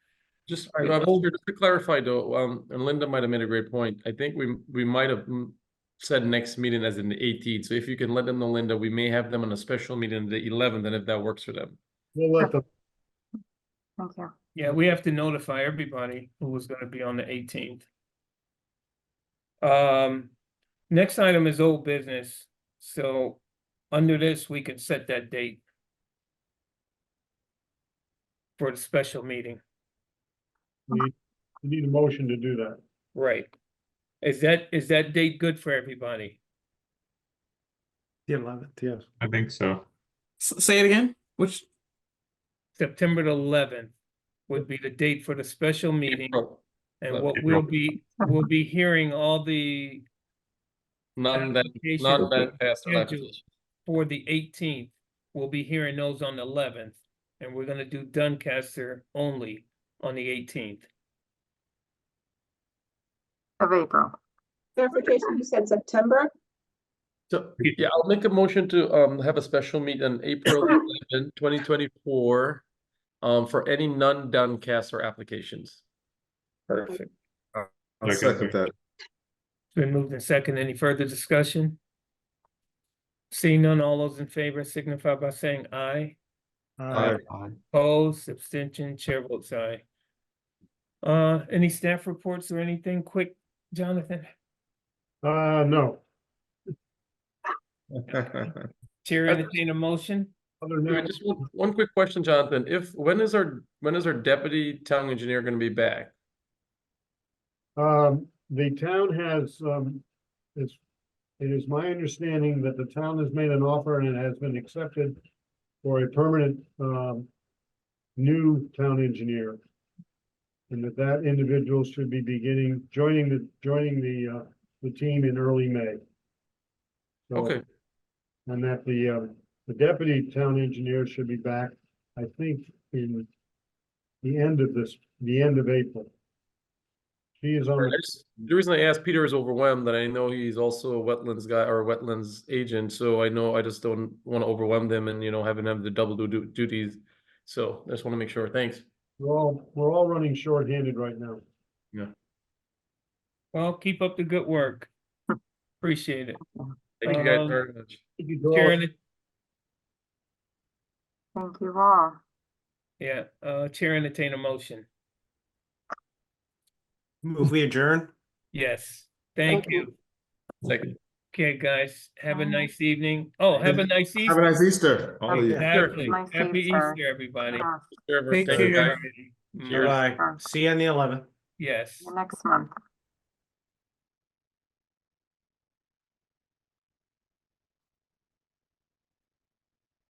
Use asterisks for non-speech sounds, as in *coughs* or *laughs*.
Just, All right. uh, Holger, just to clarify though, um, and Linda might have made a great point. I think we, we might have mm, said next meeting as in the eighteenth. So if you can let them know, Linda, we may have them on a special meeting the eleventh, and if that works for them. We'll let them, Thank you. Yeah, we have to notify everybody who was gonna be on the eighteenth. Um, next item is old business, so under this, we can set that date. For the special meeting, we need a motion to do that. right? Is that, is that date good for everybody? The eleventh, yes. I think so. S- say it again. Which September the eleventh would be the date for the special meeting, April, and what we'll April. be, we'll be hearing all the Not that, applications not that fast. Yeah, do- for the eighteenth. We'll be hearing those on the eleventh, and we're gonna do Duncaster only on the eighteenth. Of April. Clarification, you said September? So, yeah, I'll make a motion to, um, have a special meet on *coughs* April 11, 2024, um, for any non-Doncaster applications. Perfect. I'll Okay. second that. Been moved in second. Any further discussion? Seeing none, all those in favor signify by saying aye. All right, Opposed, abstention, chair votes aye. Uh, any staff reports or anything quick, Jonathan? uh, no. Chair entertain a motion? Other than Yeah, that, Just one, one quick question, Jonathan. If, when is our, when is our deputy town engineer gonna be back? Um, the town has, um, it's, it is my understanding that the town has made an offer and it has been accepted for a permanent, um, new town engineer. And that that individual should be beginning, joining the, joining the, uh, the team in early May. So- Okay, And that the, um, the deputy town engineer should be back, I think, in the end of this, the end of April. She is on. All right, the I just- the reason I asked, Peter is overwhelmed, and I know he's also a wetlands guy or a wetlands agent, so I know I just don't wanna overwhelm them and, you know, having them the double du- du- duties. So I just wanna make sure, thanks. We're all, we're all running shorthanded right now. Well, keep up the good work. Appreciate it. Thank you guys Um, very much. Chair enter- Thank you all. Yeah, uh, chair entertain a motion. Move we adjourn? Yes, thank Okay. you. Second. Okay, guys, have a Bye. nice evening. Oh, have a nice *laughs* Have a Easter. nice Easter. All of you. Exactly. Nice Happy Easter. Easter, everybody. Uh, Sure, Thank thank you. you guys. Mm, Bye. See you on the eleventh. Yes. Next month.